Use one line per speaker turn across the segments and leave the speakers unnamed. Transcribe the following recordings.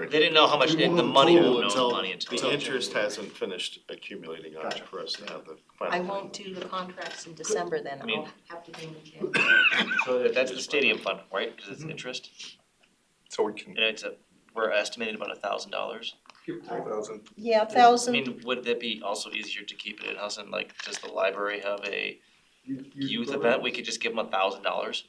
They
started.
didn't know how much,
We
the the
won't
money,
know
won't know
until-
the money until.
until-
The interest hasn't finished accumulating on
Got
it
it.
for us to have the
I
final.
won't do the contracts in December then,
I mean-
I'll have to do them again.
So that- that's the stadium fund, right? Cause it's interest,
So we can.
and it's a, we're estimating about a thousand dollars.
Give it to a thousand.
Yeah,
I
thousand,
mean, would that be also easier to keep it in-house and like, does the library have a youth
program?
event? We could just give them a thousand dollars?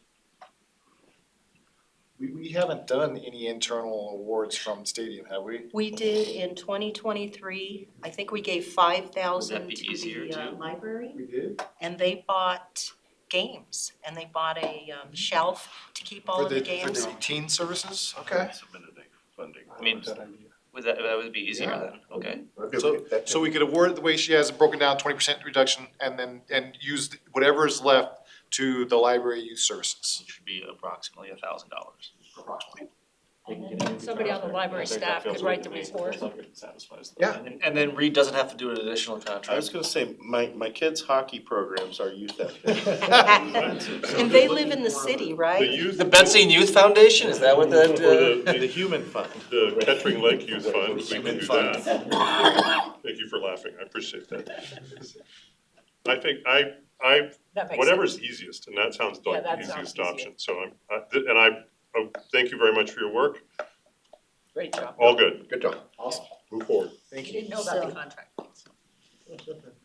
We, we haven't done any internal awards from stadium, have we?
we did in twenty twenty-three, I think we gave five thousand
be
to
easier
the uh,
to-
library.
We did?
And they bought games, and they bought a um, shelf to keep all
For
of the
the,
games.
for the teen services, okay.
Submitted a funding.
I mean, Would that, that would be easier
Yeah.
then, okay?
So, so we could award it the way she has it broken down, twenty percent reduction, and then, and use whatever is left to the library youth services.
It should be approximately a thousand dollars.
approximately.
Somebody on the library staff could write the report.
Yeah.
And, and then Reed doesn't have to do an additional
I was
contract.
gonna say, my, my kids' hockey programs are youth athletic.
And they live in the city,
The
right?
youth,
The Betsy and Youth Foundation, is that what that,
Or
uh?
the-
The human fund.
the Kettering Lake Youth Fund, we can
Human
do
fund.
that. Thank you for laughing, I appreciate that. I think, I, I,
That makes sense.
whatever's easiest, and that sounds
Yeah,
like the
that sounds
easiest
easier.
option, so I'm, I- th- and I, oh, thank you very much for your work,
Great job.
all good,
Good job.
move forward.
You didn't know about the contract.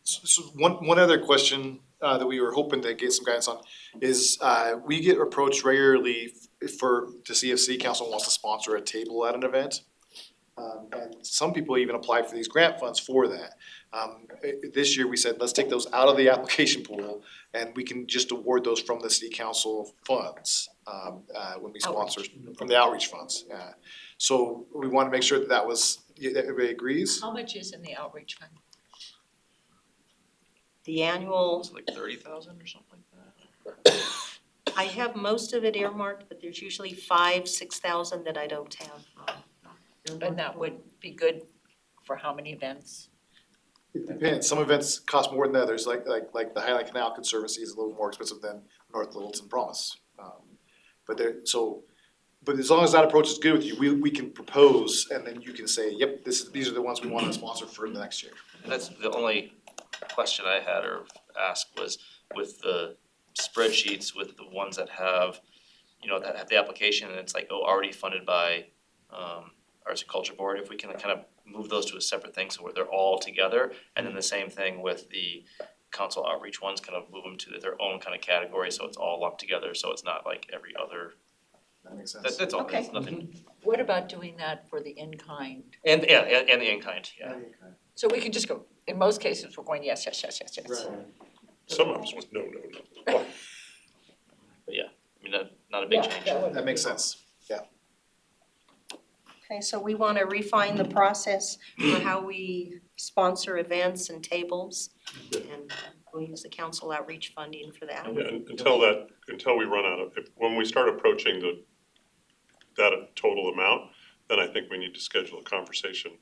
So, so one, one other question, uh, that we were hoping to get some guidance on is, uh, we get approached regularly f- for, to see if city council wants to sponsor a table at an event. Um, and some people even apply for these grant funds for that. Um, i- i- this year, we said, let's take those out of the application pool and we can just award those from the city council funds, um, uh, when we sponsor, from the outreach funds, yeah. So we wanna make sure that that was, that everybody agrees?
How much is in the outreach fund?
The annual,
It's like thirty thousand or something like that?
I have most of it earmarked, but there's usually five, six thousand that I don't have.
And that would be good for how many events?
It depends, some events cost more than others, like, like, like the Highland Canal Conservancy is a little more expensive than North Littleton Promise. Um, But there, so, but as long as that approach is good with you, we, we can propose, and then you can say, yep, this is, these are the ones we want to sponsor for the next year.
That's the only question I had or asked was with the spreadsheets, with the ones that have, you know, that have the application and it's like, oh, already funded by um Arts and Culture Board, if we can kind of move those to a separate thing so where they're all together. And then the same thing with the council outreach ones, kind of move them to their own kind of category, so it's all lumped together, so it's not like every other,
That makes sense.
that's that's all, that's
Okay.
nothing.
What about doing that for the in-kind?
And yeah, and and the in-kind, yeah.
So we can just go, in most cases, we're going yes, yes, yes, yes, yes.
Some of us was no, no, no.
I mean, not not a big
Yeah,
change.
that would
That
be
makes
good.
sense.
Okay, so we want to refine the process for how we sponsor events and tables. And uh, we'll use the council outreach funding for that.
Yeah, un- until that, until we run out of, if, when we start approaching the, that total amount, then I think we need to schedule a conversation,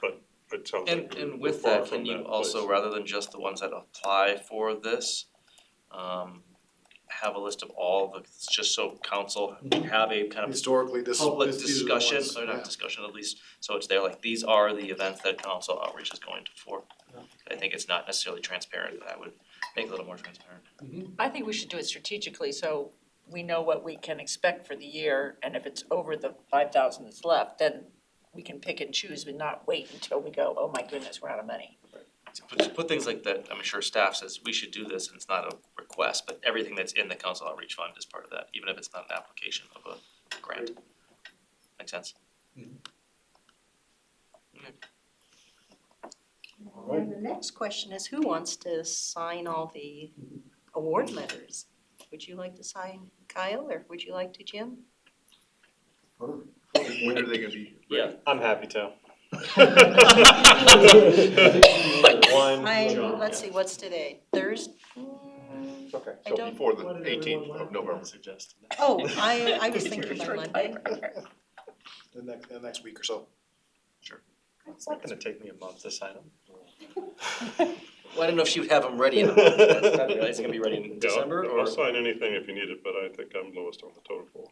but it sounds like
And
we're
and
we're
with
far
that,
from
can you
that
also,
place.
rather than just the ones that apply for this, um, have a list of all the, just so council have a kind of
Historically, this,
public
this- these are the
discussion, uh,
ones,
or
yeah.
not discussion at least, so it's there, like, these are the events that council outreach is going to for. I think it's not necessarily transparent, and I would make it a little more transparent.
I think we should do it strategically, so we know what we can expect for the year, and if it's over the five thousand that's left, then we can pick and choose, but not wait until we go, oh my goodness, we're out of money.
To put, to put things like that, I'm sure staff says, we should do this, and it's not a request, but everything that's in the council outreach fund is part of that, even if it's not an application of a grant. Make sense?
And the next question is who wants to sign all the award letters? Would you like to sign Kyle or would you like to Jim?
When are they gonna be?
Yeah.
I'm happy to.
I, let's see, what's today? Thursday?
Okay.
I don't,
before
the 18th of November.
oh, I, I was thinking by Monday.
The next, the next week or so.
It's not gonna take me a month to sign them. Well, I don't know if she would have them ready in a month, that's not, it's gonna be ready in
Yeah, I'll-
December, or
I'll sign anything if you need it, but I think I'm lowest on the total.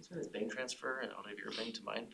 is there a bank transfer, and I'll leave your bank to mine?